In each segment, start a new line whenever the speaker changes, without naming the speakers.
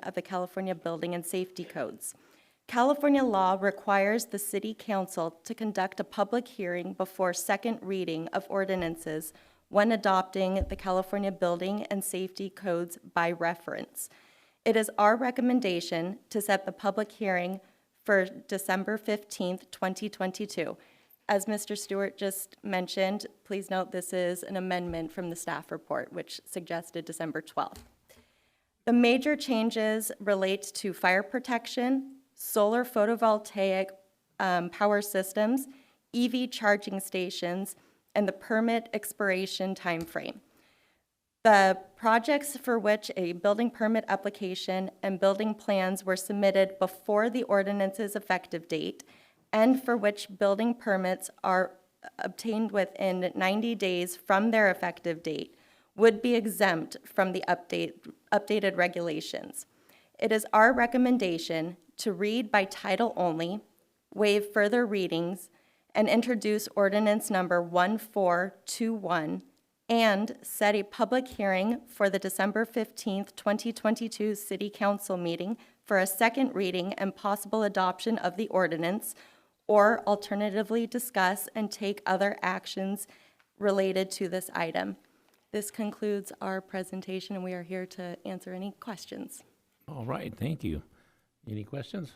of the California Building and Safety Codes. California law requires the city council to conduct a public hearing before second reading of ordinances when adopting the California Building and Safety Codes by reference. It is our recommendation to set the public hearing for December 15th, 2022. As Mr. Stewart just mentioned, please note this is an amendment from the staff report, which suggested December 12th. The major changes relate to fire protection, solar photovoltaic um, power systems, EV charging stations, and the permit expiration timeframe. The projects for which a building permit application and building plans were submitted before the ordinance's effective date and for which building permits are obtained within 90 days from their effective date would be exempt from the update, updated regulations. It is our recommendation to read by title only, waive further readings, and introduce ordinance number 1421 and set a public hearing for the December 15th, 2022 City Council meeting for a second reading and possible adoption of the ordinance, or alternatively discuss and take other actions related to this item. This concludes our presentation, and we are here to answer any questions.
All right, thank you. Any questions?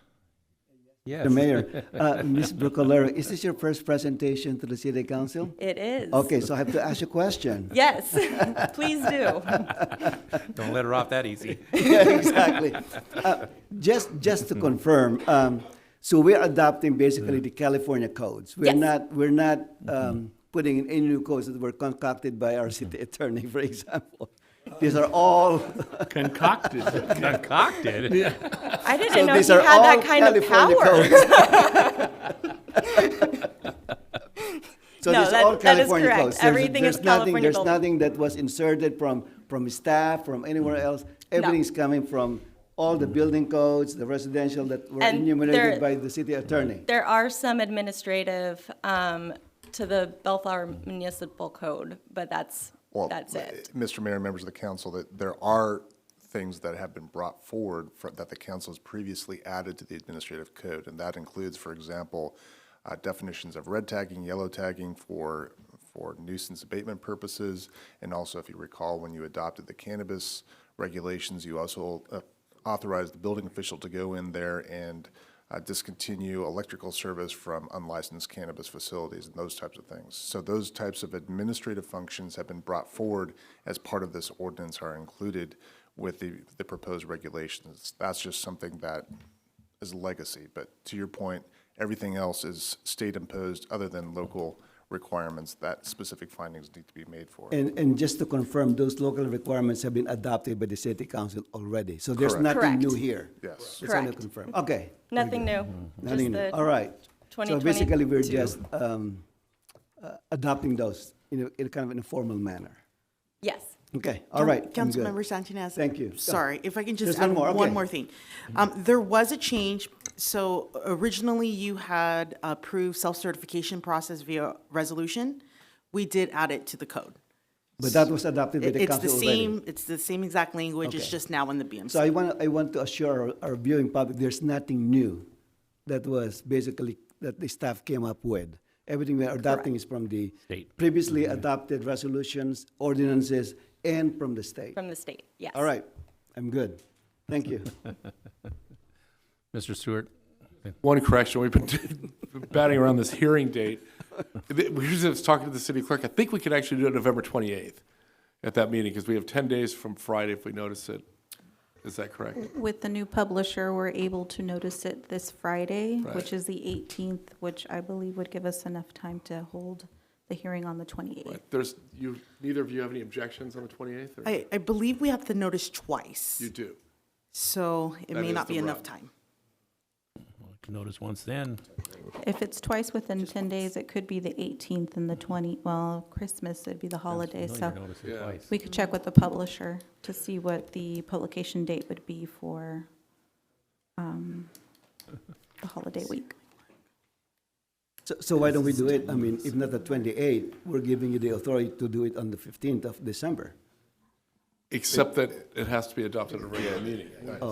Yes.
The mayor, uh, Ms. Brocolero, is this your first presentation to the city council?
It is.
Okay, so I have to ask you a question.
Yes, please do.
Don't let her off that easy.
Yeah, exactly. Uh, Just, just to confirm, um, so we're adopting basically the California codes. We're
Yes.
not, we're not, um, putting in any new codes that were concocted by our city attorney, for example. These are all,
concocted.
Concocted?
I didn't
so
know he
these are
had
all
that kind of
California
power.
codes. So
No,
these
that-
are
that
all
is
California
correct.
codes. There's-
Everything is
there's nothing-
California
There's
gold. Mm-hmm.
nothing that was inserted from, from staff, from anywhere else. Everything's coming from all the building codes, the residential that were
And there-
enumerated by the city attorney.
There are some administrative um, to the Bellflower Municipal Code, but that's,
Well,
that's it.
Mr. Mayor, members of the council, that there are things that have been brought forward fro- that the council has previously added to the administrative code, and that includes, for example, uh, definitions of red tagging, yellow tagging for, for nuisance abatement purposes, and also, if you recall, when you adopted the cannabis regulations, you also uh, authorized the building official to go in there and uh, discontinue electrical service from unlicensed cannabis facilities and those types of things. So those types of administrative functions have been brought forward as part of this ordinance are included with the, the proposed regulations. That's just something that is legacy. But to your point, everything else is state imposed other than local requirements that specific findings need to be made for.
And, and just to confirm, those local requirements have been adopted by the city council already. So there's
Correct.
nothing new
Correct.
here.
Yes.
Just want to
Correct.
confirm. Okay. Mm-hmm.
Nothing new, just
Nothing new.
the-
All right. So
2022.
basically, we're just um, uh, adopting those in a, in a kind of in a formal manner.
Yes.
Okay, all right. I'm good.
Councilmember Santinez.
Thank you. Go.
Sorry, if I can
There's
just
one
add
more, okay.
one more thing. Um, There was a change. So originally, you had approved self-certification process via resolution. We did add it to the code.
But that was adopted by
It-
the
It's the
council already.
same, it's the same exact language, it's
Okay.
just now in the BMC.
So I want, I want to assure our- our viewing public, there's nothing new that was basically, that the staff came up with. Everything we're adopting is from the
State.
previously adopted resolutions, ordinances, and from the state.
From the state, yes.
All right, I'm good. Thank you.
Mr. Stewart?
One correction, we've been batting around this hearing date. We were just talking to the city clerk, I think we could actually do it November 28th at that meeting, because we have 10 days from Friday if we notice it. Is that correct?
With the new publisher, we're able to notice it this Friday, which
Right.
is the 18th, which I believe would give us enough time to hold the hearing on the 28th.
But There's, you, neither of you have any objections on the 28th? or-
I, I believe we have to notice twice,
You do.
so it
That
may
is
not
the
be enough
rub.
time.
Notice once then,
If it's twice within 10 days, it could be the 18th and the 20, well, Christmas, it'd be the holiday,
no, you
so
notice it twice.
we could check with the publisher to see what the publication date would be for um, the holiday week.
So, so why don't we do it? I mean, if not the 28th, we're giving you the authority to do it on the 15th of December.
Except that it has to be adopted at a regular meeting.